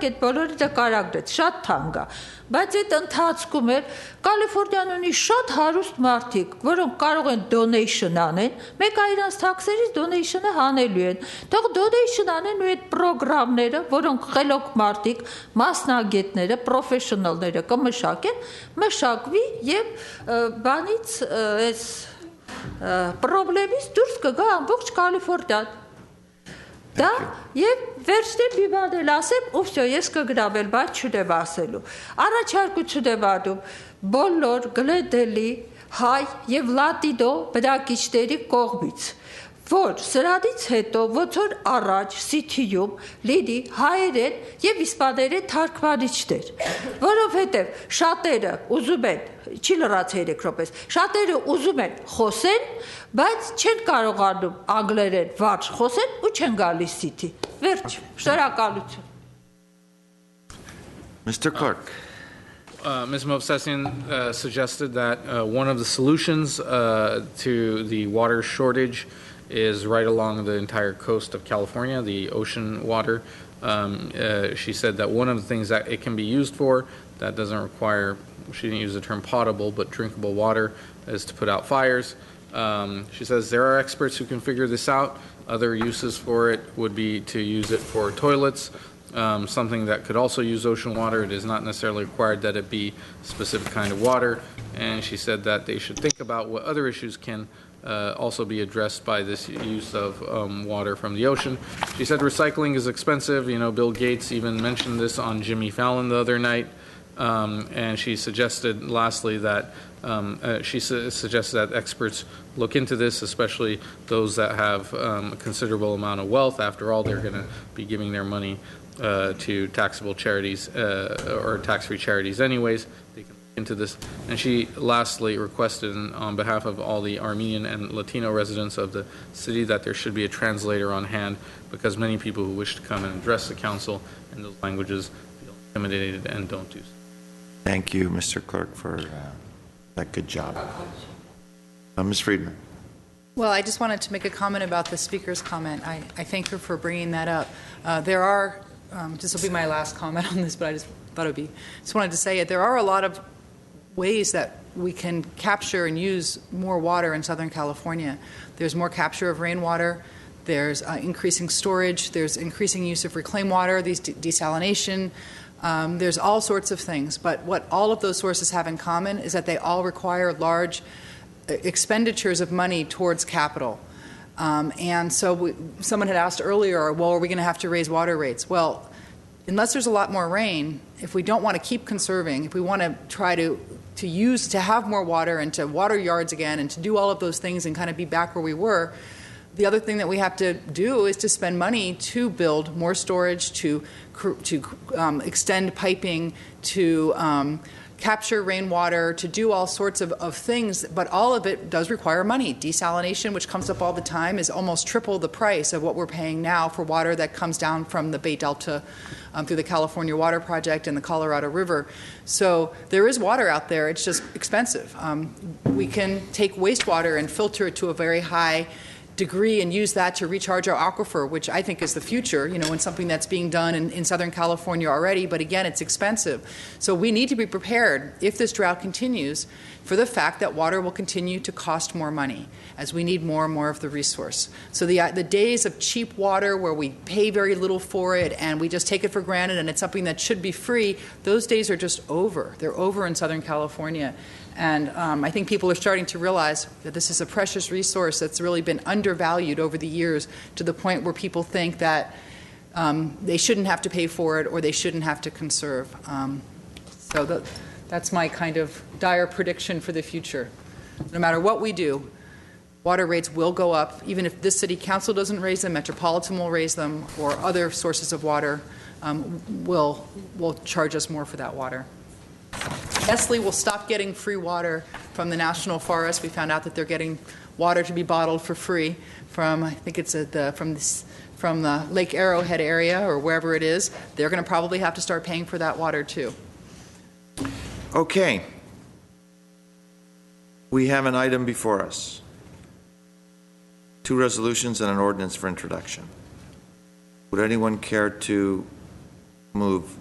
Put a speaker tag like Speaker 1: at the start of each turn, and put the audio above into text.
Speaker 1: Այդ բոլորը դա կարագրեց, շատ թանկ է, բայց այդ ընթացքում էր Կալիֆոռնիան ունի շատ հարուստ մարդիկ, որոնք կարող են donation անեն, մեկ այրանց tax-երից donation-ը հանելու են։ Թող donation անեն ու այդ ծրագրերը, որոնք խելոք մարդիկ, մասնագետները, professional-ները կմշակեն, մշակվի եւ ը, բանից ը, այս ը, պրոբլեմից դուրս կգա ամբողջ Կալիֆոռնիան։ Դա եւ վերջին բիբադել ասեմ, ու վсё, ես կգրավել, բայց չդեւ ասելու։ Առաջարկություն եմ անում բոլոր գլեդելի հայ եւ լատիդո բնակիչների կողմից որ սրանից հետո ոչ որ առաջ CT-ում լիդի հայերեն եւ իսպաներեն թարգմանիչներ, որովհետեւ շատերը ուզում են չի լրաց 3 րոպես, շատերը ուզում են խոսեն, բայց չեն կարողանում անգլերեն վարժ խոսեն ու չեն գալիս CT։ Վերջ, շնորհակալություն։
Speaker 2: Mr. Clark,
Speaker 3: Uh, Ms. Movsesian uh, suggested that uh, one of the solutions uh, to the water shortage is right along the entire coast of California, the ocean water. Um, uh, She said that one of the things that it can be used for, that doesn't require, she didn't use the term potable, but drinkable water, is to put out fires. Um, She says there are experts who can figure this out. Other uses for it would be to use it for toilets, um, something that could also use ocean water. It is not necessarily required that it be a specific kind of water. And she said that they should think about what other issues can uh, also be addressed by this use of um, water from the ocean. She said recycling is expensive. You know, Bill Gates even mentioned this on Jimmy Fallon the other night. Um, and she suggested, lastly, that um, uh, she su- suggested that experts look into this, especially those that have um, a considerable amount of wealth. After all, they're going to be giving their money uh, to taxable charities uh, or tax-free charities, anyways. They can look into this, and she lastly requested, on behalf of all the Armenian and Latino residents of the city, that there should be a translator on hand because many people who wish to come and address the council in those languages feel intimidated and don't do so.
Speaker 2: thank you, Mr. Clark, for uh, that good job. Uh, Ms. Friedman,
Speaker 4: Well, I just wanted to make a comment about the speaker's comment. I, I thank her for bringing that up. Uh, there are, um, this will be my last comment on this, but I just thought it would be, just wanted to say it. There are a lot of ways that we can capture and use more water in Southern California. There's more capture of rainwater. There's uh, increasing storage. There's increasing use of reclaimed water. These de- desalination. Um, there's all sorts of things. But what all of those sources have in common is that they all require large uh, expenditures of money towards capital. Um, and so we, someone had asked earlier, well, are we going to have to raise water rates? Well, unless there's a lot more rain, if we don't want to keep conserving, if we want to try to to use to have more water and to water yards again and to do all of those things and kind of be back where we were, the other thing that we have to do is to spend money to build more storage, to cr- to um, extend piping, to um, capture rainwater, to do all sorts of, of things, but all of it does require money. Desalination, which comes up all the time, is almost triple the price of what we're paying now for water that comes down from the Bay Delta um, through the California Water Project and the Colorado River. So there is water out there, it's just expensive. Um, we can take wastewater and filter it to a very high degree and use that to recharge our aquifer, which I think is the future, you know, and something that's being done in, in Southern California already. But again, it's expensive. So we need to be prepared, if this drought continues, for the fact that water will continue to cost more money as we need more and more of the resource. So the, uh, the days of cheap water where we pay very little for it and we just take it for granted and it's something that should be free, those days are just over. They're over in Southern California. And um, I think people are starting to realize that this is a precious resource that's really been undervalued over the years to the point where people think that um, they shouldn't have to pay for it or they shouldn't have to conserve. Um, so tha- that's my kind of dire prediction for the future. No matter what we do, water rates will go up, even if this city council doesn't raise them, Metropolitan will raise them, or other sources of water um, will, will charge us more for that water. Nestle will stop getting free water from the national forest. We found out that they're getting water to be bottled for free from, I think it's at the, from this, from the Lake Arrowhead area or wherever it is. They're going to probably have to start paying for that water too.
Speaker 2: okay. We have an item before us. Two resolutions and an ordinance for introduction. Would anyone care to move